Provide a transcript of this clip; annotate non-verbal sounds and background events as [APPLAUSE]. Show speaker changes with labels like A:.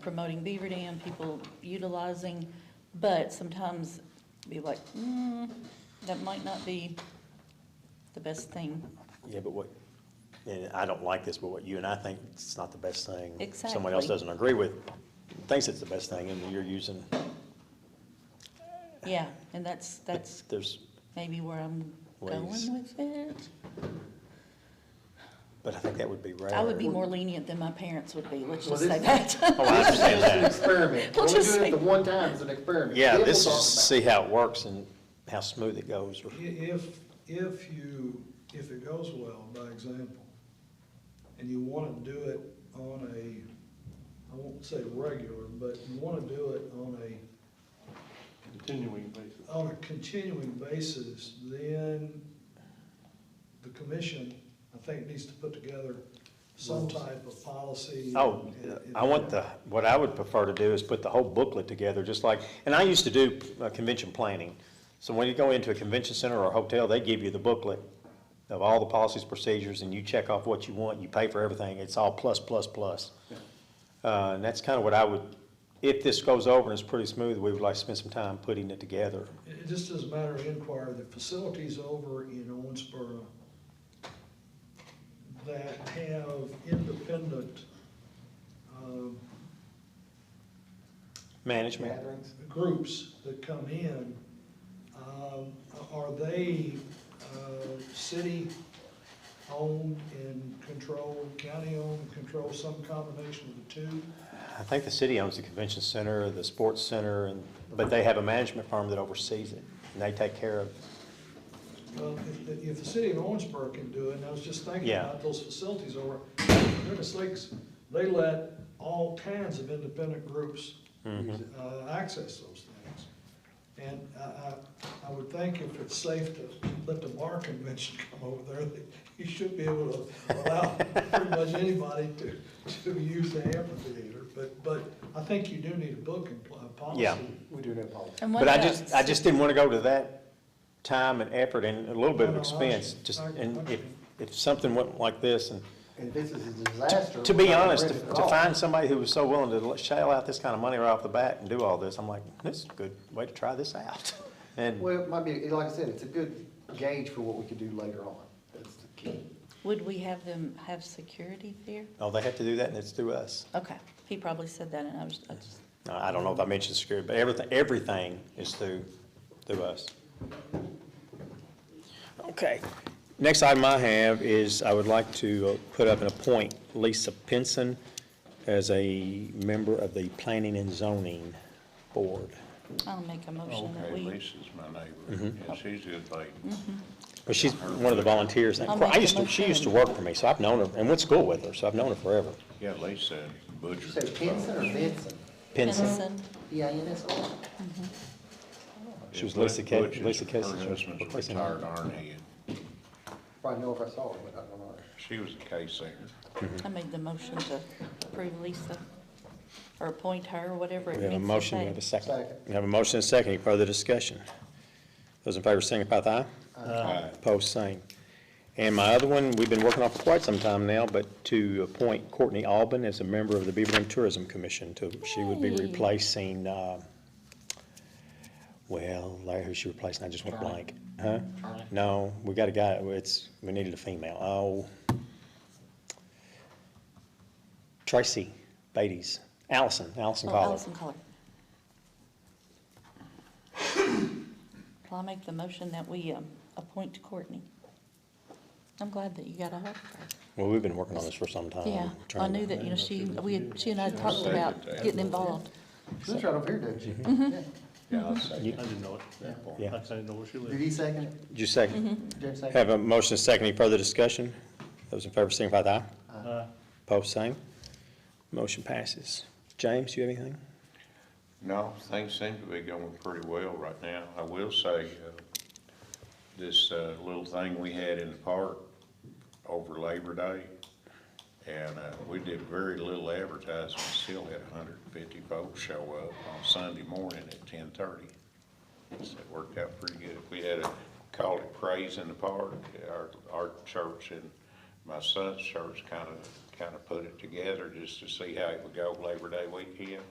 A: promoting Beaver Dam, people utilizing, but sometimes be like, mm, that might not be the best thing.
B: Yeah, but what, and I don't like this, but what you and I think it's not the best thing. Someone
A: Exactly.
B: else doesn't agree with, thinks it's the best thing, and you're using,
A: Yeah, and that's, that's
B: there's,
A: maybe where I'm going
B: Ways.
A: with it.
B: but I think that would be rare.
A: I would be more lenient than my parents would be, let's
C: Well,
A: just say
C: this-
A: that.
B: Oh, I understand
C: It's an
B: that.
C: experiment.
A: We'll
C: We're
A: just
C: doing it the
A: say-
C: one time as an experiment.
B: Yeah,
C: Then
B: this
C: we'll
B: is,
C: talk about it.
B: see how it works and how smooth it goes. or-
D: I- If, if you, if it goes well, by example, and you want to do it on a, I won't say regular, but you want to do it on a,
E: Continuing basis.
D: on a continuing basis, then the commission, I think, needs to put together some type of policy.
B: Oh,
D: and-
B: I want the, what I would prefer to do is put the whole booklet together, just like, and I used to do uh, convention planning. So when you go into a convention center or a hotel, they give you the booklet of all the policies, procedures, and you check off what you want, you pay for everything, it's all plus, plus, plus. Uh, and that's kind of what I would, if this goes over and it's pretty smooth, we would like to spend some time putting it together.
D: It it just as a matter of inquiry, the facilities over in Owensboro that have independent, um,
B: Management,
C: Gatherings.
D: groups that come in, um, are they, uh, city-owned and controlled, county-owned, and controlled, some combination of the two?
B: I think the city owns the convention center, the sports center, and, but they have a management firm that oversees it, and they take care of
D: Well, if, the- if the city of Owensboro can do it, and I was just thinking
B: Yeah.
D: about those facilities over, Goodness Lakes, they let all kinds of independent groups,
B: Mm-hmm.
D: uh, access those things. And I, I, I would think if it's safe to let the bar convention [LAUGHS] come over there, that you should be able to allow pretty much anybody to, to use the amphitheater. But, but I think you do need a book and pl- a
B: Yeah.
D: policy.
C: We do need policy.
A: [LAUGHS] And what
B: But I
A: about
B: just, I just didn't want to go to that time and effort and a little bit of expense, just, and if, if something went like this, and,
C: And if this is a disaster.
B: to
C: we're
B: be
C: not gonna
B: honest, to
C: bridge it at
B: to
C: all.
B: find somebody who was so willing to shell out this kind of money right off the bat and do all this, I'm like, this is a good way to try this out. [LAUGHS] And,
C: Well, it might be, like I said, it's a good gauge for what we could do later on. That's the key.
A: Would we have them have security there?
B: oh, they have to do that, and it's through us.
A: Okay, he probably said that, and I was, I just,
B: No, I don't know if I mentioned security, but everything, everything is through, through us. Okay. Next item I have is I would like to uh, put up and appoint Lisa Pinson as a member of the Planning and Zoning Board.
A: I'll make a motion that
E: Oh, Okay,
A: we.
E: Lisa's my neighbor,
B: Mm-hmm.
E: and she's a good lady.
B: Well, she's one of the volunteers.
A: I'll make
B: I used
A: a
B: to,
A: motion.
B: she used to work for me, so I've known her, and went to school with her, so I've known her forever.
E: Yeah, Lisa
C: Did you
E: butchered.
C: say Pinson or Benson?
B: Pinson.
A: Benson.
C: B I N S O N?
B: She was Lisa Ca-
E: Butcher's-
B: Lisa Casey's
E: Her husband's
B: replacement.
E: retired Army, and
C: Probably know if I saw it, but I don't know.
E: she was a K singer.
A: I made the motion to approve Lisa, or appoint her, or whatever it
B: We have a
A: means to
B: motion, we
A: say.
B: have a second.
C: Second.
B: We have a motion and a second, any further discussion? Those in favor signify with aye.
E: Aye.
B: Opposed, same. And my other one, we've been working on for quite some time now, but to appoint Courtney Alban as a member of the Beaver Dam Tourism Commission to, she would be
A: Yay.
B: replacing, uh, well, Larry, who's she replacing? I just went blank. Huh? No, we got a guy, it's, we needed a female. Oh. Tracy Beatties, Allison, Allison
A: Oh,
B: Collar.
A: Allison Collar. Well, I make the motion that we um, appoint Courtney. I'm glad that you got a hold of her.
B: Well, we've been working on this for some time.
A: Yeah, I
B: trying to-
A: knew that, you know, she, we, had- she and I had talked about getting involved.
C: She lives right over here, doesn't she?
B: Mm-hmm.
C: Yeah.
E: Yeah, I'll say
B: You-
F: I didn't know it at that point.
B: Yeah.
F: I didn't know where she
C: Did
F: lived.
C: he second it?
B: Did you
A: Mm-hmm.
B: second?
C: James seconded?
B: Have a motion and second, any further discussion? Those in favor signify with aye.
F: Uh,
B: Opposed, same. Motion passes. James, you have anything?
E: No, things seem to be going pretty well right now. I will say, uh, this uh, little thing we had in the park over Labor Day, and uh, we did very little advertising, still had hundred and fifty folks show up on Sunday morning at ten-thirty. So it worked out pretty good. We had a, called it Praise in the Park, our, our church and my son's church kind of kind of put it together just to see how it would go Labor Day weekend.